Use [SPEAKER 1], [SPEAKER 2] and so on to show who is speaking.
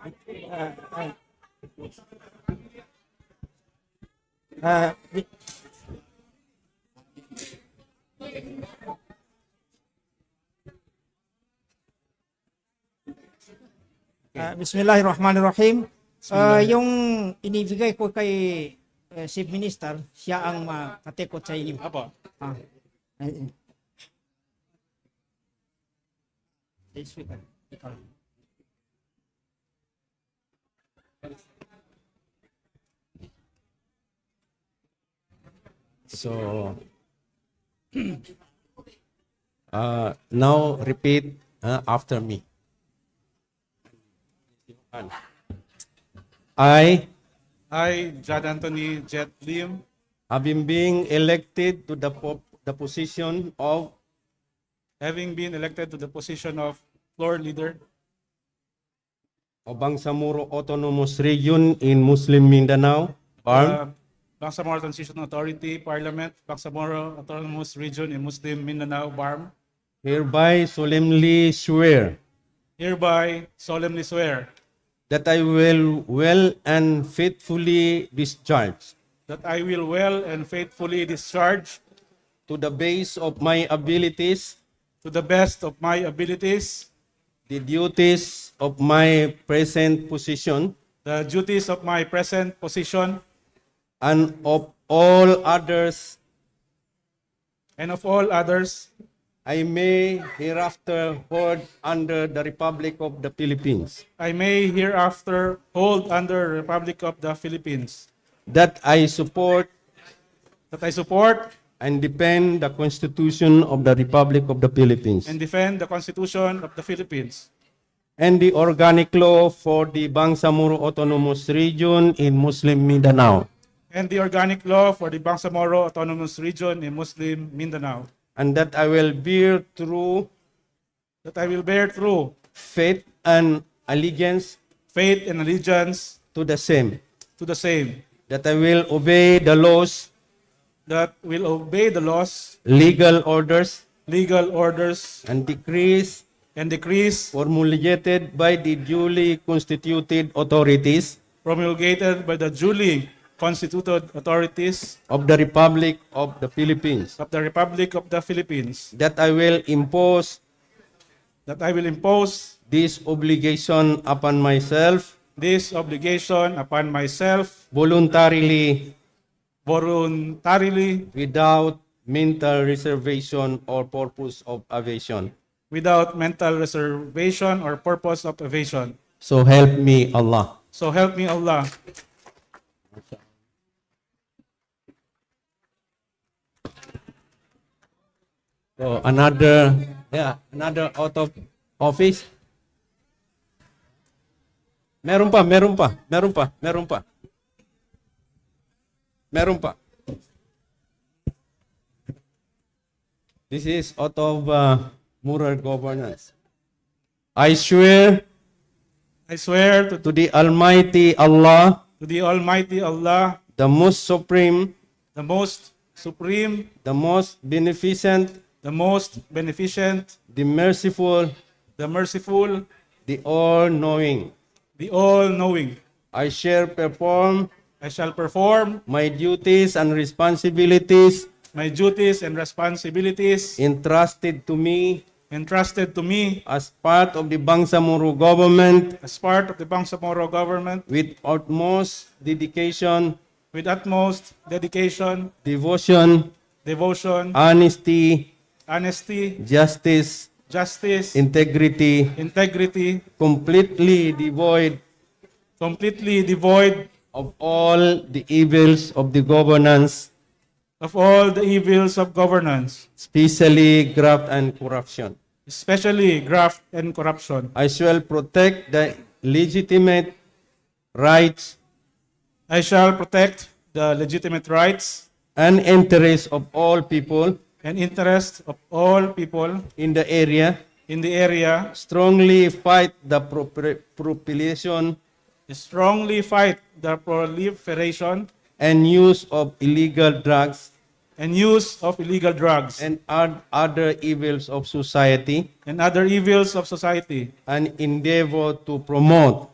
[SPEAKER 1] Ah, ah. Ah, di- Ah, Bismillahirrahmanirrahim. Ah, yung inibigay ko kay eh, Chief Minister, siya ang makatikot sa inyo.
[SPEAKER 2] Apo.
[SPEAKER 1] Ah. Ay, ay. This week, ah. Ikaw.
[SPEAKER 3] So, uh, now repeat uh, after me. I
[SPEAKER 2] I, Jad Anthony Jet Lim,
[SPEAKER 3] having been elected to the, po- the position of
[SPEAKER 2] having been elected to the position of floor leader
[SPEAKER 3] Obangsamoro Autonomous Region in Muslim Mindanao, Barm,
[SPEAKER 2] uh, Bangsamoro Transition Authority, Parliament, Bangsamoro Autonomous Region in Muslim Mindanao, BARM,
[SPEAKER 3] hereby solemnly swear
[SPEAKER 2] hereby solemnly swear
[SPEAKER 3] that I will well and faithfully discharge
[SPEAKER 2] that I will well and faithfully discharge
[SPEAKER 3] to the base of my abilities
[SPEAKER 2] to the best of my abilities
[SPEAKER 3] the duties of my present position
[SPEAKER 2] the duties of my present position
[SPEAKER 3] and of all others
[SPEAKER 2] and of all others
[SPEAKER 3] I may hereafter hold under the Republic of the Philippines,
[SPEAKER 2] I may hereafter hold under Republic of the Philippines,
[SPEAKER 3] that I support
[SPEAKER 2] that I support
[SPEAKER 3] and defend the Constitution of the Republic of the Philippines
[SPEAKER 2] and defend the Constitution of the Philippines
[SPEAKER 3] and the organic law for the Bangsamoro Autonomous Region in Muslim Mindanao,
[SPEAKER 2] and the organic law for the Bangsamoro Autonomous Region in Muslim Mindanao,
[SPEAKER 3] and that I will bear true
[SPEAKER 2] that I will bear true
[SPEAKER 3] faith and allegiance
[SPEAKER 2] faith and allegiance
[SPEAKER 3] to the same,
[SPEAKER 2] to the same,
[SPEAKER 3] that I will obey the laws
[SPEAKER 2] that will obey the laws,
[SPEAKER 3] legal orders
[SPEAKER 2] legal orders,
[SPEAKER 3] and decrees
[SPEAKER 2] and decrees
[SPEAKER 3] formulated by the duly constituted authorities
[SPEAKER 2] promulgated by the duly constituted authorities
[SPEAKER 3] of the Republic of the Philippines,
[SPEAKER 2] of the Republic of the Philippines,
[SPEAKER 3] that I will impose
[SPEAKER 2] that I will impose
[SPEAKER 3] this obligation upon myself
[SPEAKER 2] this obligation upon myself
[SPEAKER 3] voluntarily
[SPEAKER 2] voluntarily
[SPEAKER 3] without mental reservation or purpose of evasion.
[SPEAKER 2] without mental reservation or purpose of evasion.
[SPEAKER 3] So help me Allah.
[SPEAKER 2] So help me Allah.
[SPEAKER 3] So another, yeah, another out of office. Meron pa, meron pa, meron pa, meron pa. Meron pa. This is out of uh, moral governance. I swear
[SPEAKER 2] I swear to,
[SPEAKER 3] to the Almighty Allah,
[SPEAKER 2] to the Almighty Allah,
[SPEAKER 3] the most supreme,
[SPEAKER 2] the most supreme,
[SPEAKER 3] the most beneficent,
[SPEAKER 2] the most beneficent,
[SPEAKER 3] the merciful,
[SPEAKER 2] the merciful,
[SPEAKER 3] the all-knowing.
[SPEAKER 2] the all-knowing.
[SPEAKER 3] I shall perform
[SPEAKER 2] I shall perform
[SPEAKER 3] my duties and responsibilities
[SPEAKER 2] my duties and responsibilities
[SPEAKER 3] entrusted to me
[SPEAKER 2] entrusted to me
[SPEAKER 3] as part of the Bangsamoro government
[SPEAKER 2] as part of the Bangsamoro government
[SPEAKER 3] with utmost dedication,
[SPEAKER 2] with utmost dedication,
[SPEAKER 3] devotion,
[SPEAKER 2] devotion,
[SPEAKER 3] honesty,
[SPEAKER 2] honesty,
[SPEAKER 3] justice,
[SPEAKER 2] justice,
[SPEAKER 3] integrity,
[SPEAKER 2] integrity,
[SPEAKER 3] completely devoid
[SPEAKER 2] completely devoid
[SPEAKER 3] of all the evils of the governance,
[SPEAKER 2] of all the evils of governance,
[SPEAKER 3] especially graft and corruption.
[SPEAKER 2] especially graft and corruption.
[SPEAKER 3] I shall protect the legitimate rights
[SPEAKER 2] I shall protect the legitimate rights
[SPEAKER 3] and interests of all people
[SPEAKER 2] and interests of all people
[SPEAKER 3] in the area,
[SPEAKER 2] in the area,
[SPEAKER 3] strongly fight the propri- propagation
[SPEAKER 2] strongly fight the proliferation
[SPEAKER 3] and use of illegal drugs
[SPEAKER 2] and use of illegal drugs
[SPEAKER 3] and oth- other evils of society,
[SPEAKER 2] and other evils of society,
[SPEAKER 3] and endeavor to promote